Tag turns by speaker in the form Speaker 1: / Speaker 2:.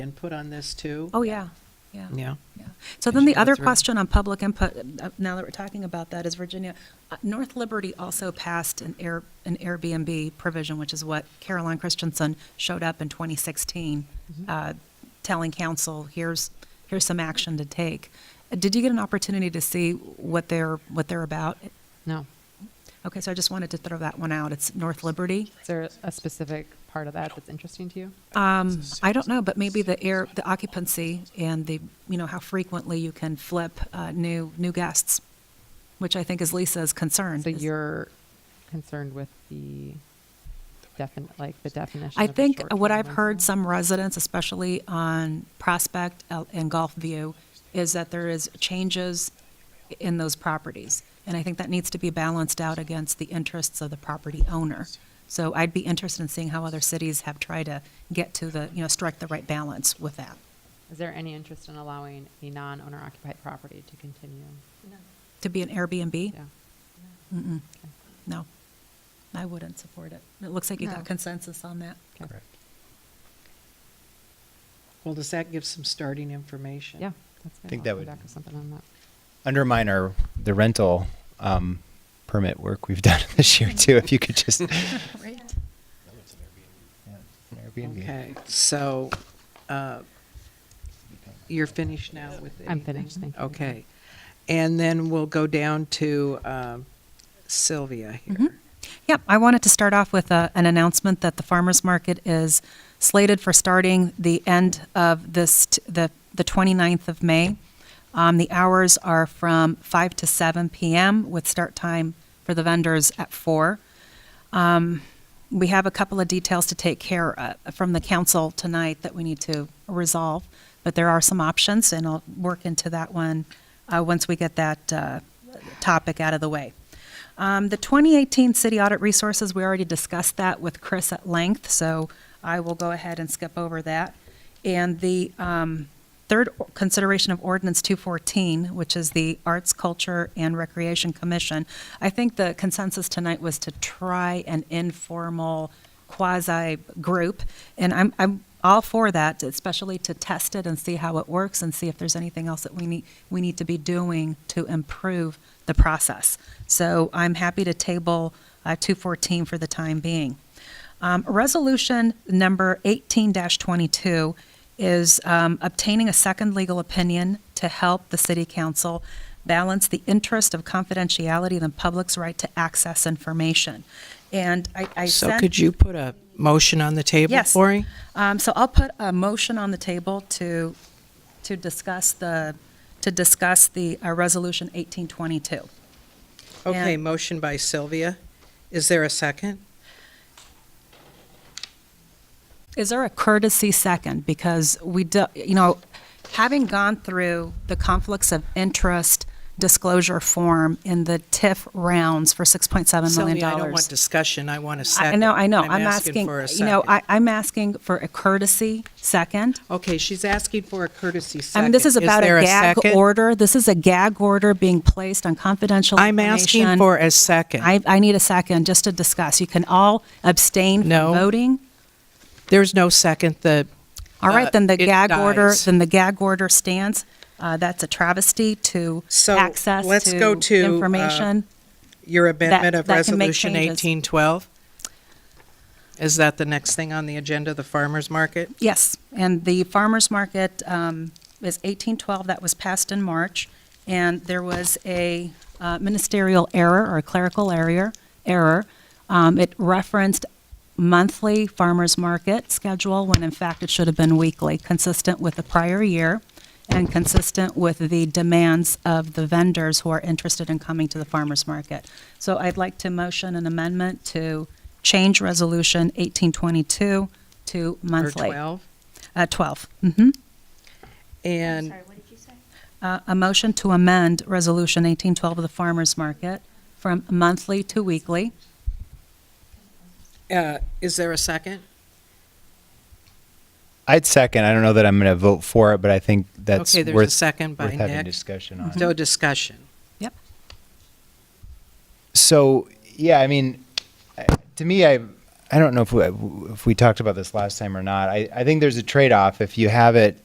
Speaker 1: input on this too?
Speaker 2: Oh, yeah, yeah.
Speaker 1: Yeah.
Speaker 2: yeah. So then
Speaker 1: should
Speaker 2: the
Speaker 1: go
Speaker 2: other
Speaker 1: through.
Speaker 2: question on public input, uh, now that we're talking about that, is Virginia, uh, North Liberty also passed an Air, an Airbnb provision, which is what Caroline Christensen showed up in 2016,
Speaker 1: Mm-hmm.
Speaker 2: uh, telling council, here's, here's some action to take. Uh, Did you get an opportunity to see what they're, what they're about?
Speaker 3: No.
Speaker 2: Okay, so I just wanted to throw that one out. It's North Liberty.
Speaker 3: Is there a specific part of that that's interesting to you?
Speaker 2: Um, I don't know, but maybe the air, the occupancy and the, you know, how frequently you can flip uh, new, new guests, which I think is Lisa's concern.
Speaker 3: So
Speaker 2: is-
Speaker 3: you're concerned with the defin, like the definition
Speaker 2: I
Speaker 3: of a
Speaker 2: think what
Speaker 3: short-term
Speaker 2: I've heard
Speaker 3: rental?
Speaker 2: some residents, especially on Prospect uh, and Gulf View, is that there is changes in those properties. And I think that needs to be balanced out against the interests of the property owner. So I'd be interested in seeing how other cities have tried to get to the, you know, strike the right balance with that.
Speaker 3: Is there any interest in allowing a non-owner occupied property to continue?
Speaker 2: To be an Airbnb?
Speaker 3: Yeah.
Speaker 2: Mm-mm.
Speaker 3: Okay.
Speaker 2: No, I wouldn't support it. It looks like you
Speaker 3: No.
Speaker 2: got consensus on that.
Speaker 3: Okay.
Speaker 1: Well, does that give some starting information?
Speaker 3: Yeah, that's good.
Speaker 4: Think
Speaker 3: I'll
Speaker 4: that
Speaker 3: come
Speaker 4: would-
Speaker 3: back with something on that.
Speaker 4: undermine our the rental um, permit work we've done this year too. If you could just
Speaker 2: Right.
Speaker 4: Airbnb.
Speaker 1: Okay, so uh, you're finished now with the...
Speaker 3: I'm finished, thank you.
Speaker 1: Okay. And then we'll go down to um, Sylvia
Speaker 2: Mm-hmm.
Speaker 1: here.
Speaker 2: Yep, I wanted to start off with a, an announcement that the farmer's market is slated for starting the end of this, t- the, the 29th of May. Um, the hours are from 5 to 7 p.m. with start time for the vendors at 4. we have a couple of details to take care of from the council tonight that we need to resolve, but there are some options, and I'll work into that one uh, once we get that uh, topic out of the way. Um, The 2018 city audit resources, we already discussed that with Chris at length, so I will go ahead and skip over that. And the um, third o- consideration of ordinance 214, which is the Arts, Culture, and Recreation Commission, I think the consensus tonight was to try an informal quasi-group, and I'm, I'm all for that, especially to test it and see how it works and see if there's anything else that we need, we need to be doing to improve the process. So I'm happy to table uh, 214 for the time being. Um, Resolution number 18-22 is um, obtaining a second legal opinion to help the city council balance the interest of confidentiality and the public's right to access information. And I I
Speaker 1: So
Speaker 2: sent...
Speaker 1: could you put a motion on the table
Speaker 2: Yes.
Speaker 1: for me?
Speaker 2: Um, So I'll put a motion on the table to, to discuss the, to discuss the uh, Resolution 1822.
Speaker 1: Okay,
Speaker 2: And-
Speaker 1: motion by Sylvia. Is there a second?
Speaker 2: Is there a courtesy second? Because we, do- you know, having gone through the conflicts of interest disclosure form in the TIF rounds for $6.7 million.
Speaker 1: Sylvia, I don't want discussion, I want a
Speaker 2: I-
Speaker 1: second.
Speaker 2: I know, I know.
Speaker 1: I'm asking for a
Speaker 2: You know,
Speaker 1: second.
Speaker 2: I- I'm asking for a courtesy second.
Speaker 1: Okay, she's asking for a courtesy
Speaker 2: I
Speaker 1: second.
Speaker 2: mean, this is about
Speaker 1: there
Speaker 2: a gag
Speaker 1: second?
Speaker 2: order. This is a gag order being placed on confidential
Speaker 1: I'm asking
Speaker 2: information.
Speaker 1: for a second.
Speaker 2: I, I need a second just to discuss. You can all abstain from
Speaker 1: No.
Speaker 2: voting.
Speaker 1: There's no second, the.
Speaker 2: All
Speaker 1: Uh,
Speaker 2: right, then the
Speaker 1: it
Speaker 2: gag order,
Speaker 1: dies.
Speaker 2: then the gag order stands. Uh, that's a travesty to
Speaker 1: So,
Speaker 2: access
Speaker 1: let's go to, uh,
Speaker 2: to information.
Speaker 1: Your amendment of
Speaker 2: that can make
Speaker 1: Resolution
Speaker 2: changes.
Speaker 1: 1812? Is that the next thing on the agenda, the farmer's market?
Speaker 2: Yes, and the farmer's market um, is 1812, that was passed in March, and there was a uh, ministerial error or a clerical error. error. Um, It referenced monthly farmer's market schedule, when in fact it should have been weekly, consistent with the prior year and consistent with the demands of the vendors who are interested in coming to the farmer's market. So I'd like to motion an amendment to change Resolution 1822 to
Speaker 1: Or
Speaker 2: monthly.
Speaker 1: 12?
Speaker 2: Uh, 12. Mm-hmm.
Speaker 5: I'm
Speaker 1: And
Speaker 5: sorry, what did you say?
Speaker 2: Uh, a motion to amend Resolution 1812 of the Farmers Market from monthly to weekly.
Speaker 1: uh, is there a second?
Speaker 4: I'd second. I don't know that I'm going to vote for it, but I think that's
Speaker 1: Okay, there's a
Speaker 4: worth,
Speaker 1: second by
Speaker 4: worth having
Speaker 1: Nick.
Speaker 4: discussion
Speaker 2: Mm-hmm.
Speaker 4: on.
Speaker 1: No discussion.
Speaker 2: Yep.
Speaker 4: So yeah, I mean, I- to me, I I don't know if we, if we talked about this last time or not. I, I think there's a trade off if you have it